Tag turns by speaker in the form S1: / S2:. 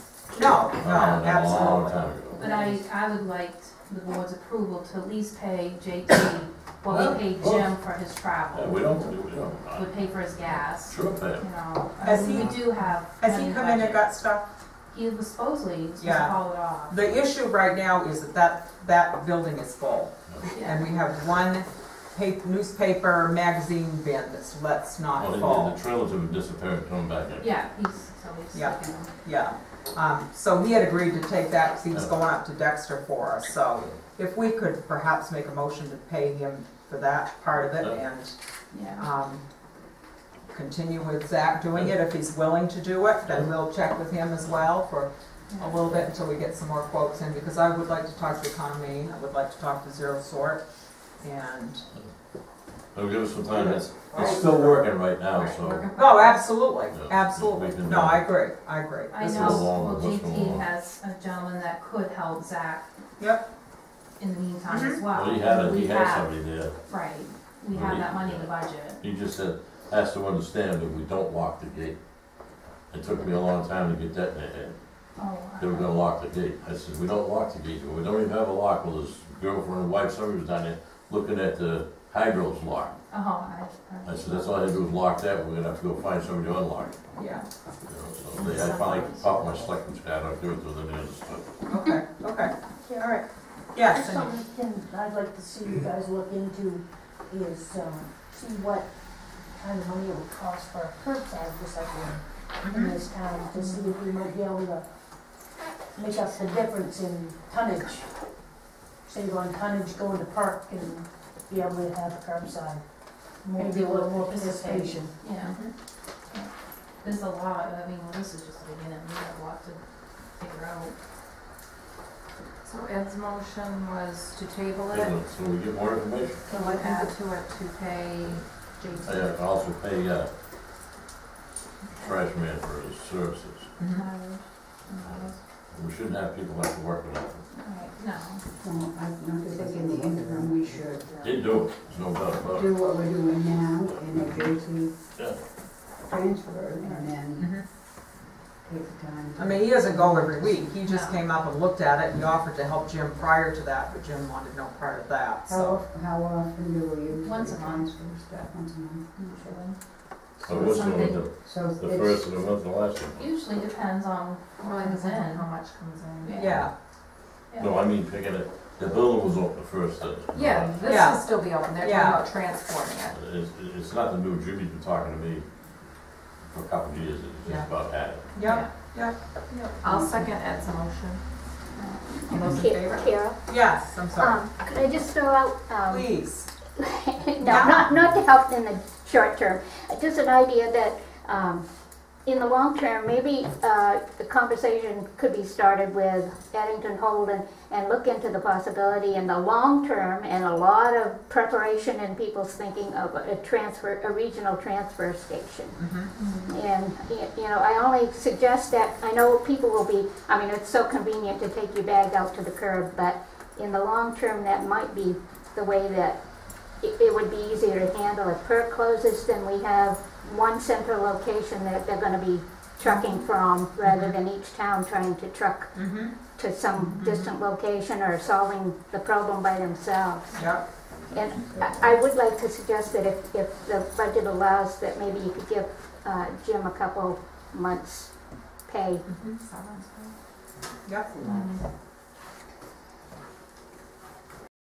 S1: No,
S2: Uh,
S1: no,
S2: a Long
S1: absolutely.
S2: time
S3: Um,
S2: ago.
S3: But I, I would like the board's approval to at least pay JT what we paid Jim for his
S2: Yeah,
S3: travel.
S2: Uh, we don't, we don't,
S3: We
S2: uh,
S3: pay for his gas, you
S2: sure pay.
S3: know, I
S1: Has
S3: mean, we
S1: he-
S3: do have.
S1: Has he
S3: money
S1: come in and
S3: budget.
S1: got stuff?
S3: He was supposedly, he was supposed to
S1: Yeah.
S3: haul it off.
S1: The issue right now is that that, that building is full, and
S3: Yeah.
S1: we have one pa- newspaper magazine bin that's, let's not
S2: Well, the-
S1: full,
S2: the trailers have disappeared, coming back in.
S3: Yeah, he's, so he's.
S1: Yeah.
S3: taking them.
S1: yeah. Um, so he had agreed to take that, 'cause he was going up to Dexter for us, so if we could perhaps make a motion to pay him for that part of it and,
S3: Yeah,
S1: um, continue with Zach doing it, if he's willing to do it, then we'll check with him as well for a
S3: yeah.
S1: little bit until we get some more quotes in, because I would like to talk to Economy, I would like to talk to Zero Sort, and,
S2: They'll give us some time, it's, it's
S1: Right.
S2: still working right now,
S3: Right,
S2: so.
S3: working for-
S1: oh, absolutely,
S2: Yeah, we
S1: absolutely,
S2: can,
S1: no,
S2: uh,
S1: I agree, I agree.
S3: I
S1: This
S3: know,
S2: is
S1: was-
S2: long,
S3: well,
S2: this is long.
S3: JT has a gentleman that could help Zach
S1: Yep, Mm-hmm.
S3: in the meantime as well.
S2: Well, he had, a- he
S3: We
S2: had
S3: have-
S2: somebody there,
S3: Right, we have that money in the budget.
S2: he just said, has to understand that we don't lock the gate. It took me a long time to get that, in there.
S3: Oh,
S2: they were gonna lock the gate, I said, we don't lock the gate, we don't even have a lock, well, his girlfriend and wife, somebody was down there looking at the hydro's lock.
S3: oh, I.
S2: I said, that's all I had to do was lock that, we're gonna have to go find somebody to unlock it.
S1: yeah,
S2: You know, so they- I finally popped my selectman's hat, I'll do it to them,
S1: okay, okay, all right,
S4: That's
S1: yes, and-
S4: something I'd like to see you guys look into is, um, see what kind of money it would cost for a curbside recycling in
S1: mhm,
S4: this town, to see if we might be able to make up the difference in tonnage. Save on tonnage going to park and be able to have a curbside, maybe a little more participation.
S3: Yeah. There's a lot, I mean, well, this is just the beginning, we have a lot to figure out.
S5: So Ed's motion was to table it,
S2: so we get more information.
S5: to look into it, to pay
S2: I uh,
S5: JT.
S2: also pay, uh, trash man for his services.
S1: mhm.
S3: Mileage, miles.
S2: We shouldn't have people have to work without them.
S3: Right, No,
S6: Well, I don't think in the interim, we should
S2: Didn't do it, there's no doubt about it.
S6: do what we're doing now in a JT
S2: Yeah.
S6: transfer and then
S1: mhm.
S6: take the time. to-
S1: I mean, he doesn't go every week, he just
S3: No.
S1: came up and looked at it, and he offered to help Jim prior to that, but Jim wanted no part of that,
S6: How,
S3: Oh,
S1: so.
S6: of- how often do we usually
S3: Once a month.
S6: transfer stuff? Once a month.
S3: usually,
S2: So what's the,
S3: Something-
S2: the
S6: So it's.
S2: the first and the month and the last one?
S3: usually depends on what
S5: Really
S3: comes
S5: depends on how
S3: in.
S5: much comes in.
S1: Yeah,
S2: No, I mean picking it, the building was open the first day.
S5: Yeah, this
S1: Yeah.
S5: will still be open, they're talking
S1: Yeah.
S5: about transforming it.
S2: Uh, It's, it's not the new, Jimmy's been talking to me for a couple of years, it's
S1: Yeah.
S2: just about had it.
S1: yep,
S5: I'll second Ed's motion. All those in favor?
S7: Kara,
S1: yes, I'm sorry,
S7: uh, um, could I just throw out, um,
S1: please,
S7: no, not, not to help in the short term, just an idea that, um, in the long term, maybe, uh, the conversation could be started with Eddington Holden and look into the possibility in the long term and a lot of preparation and people's thinking of a transfer, a regional transfer station.
S1: mhm,
S7: And, y- you know, I only suggest that, I know people will be, I mean, it's so convenient to take your bag out to the curb, but in the long term, that might be the way that it, it would be easier to handle. If Perk closes, then we have one central location that they're gonna be trucking from, rather than each town trying to truck
S1: mhm,
S7: to some distant location or solving the problem by themselves.
S1: yep,
S7: And I I would like to suggest that if, if the budget allows, that maybe you could give uh, Jim a couple months' pay.
S3: mm-hmm,
S5: Mhm. Severance pay?
S1: yep.
S5: Mhm.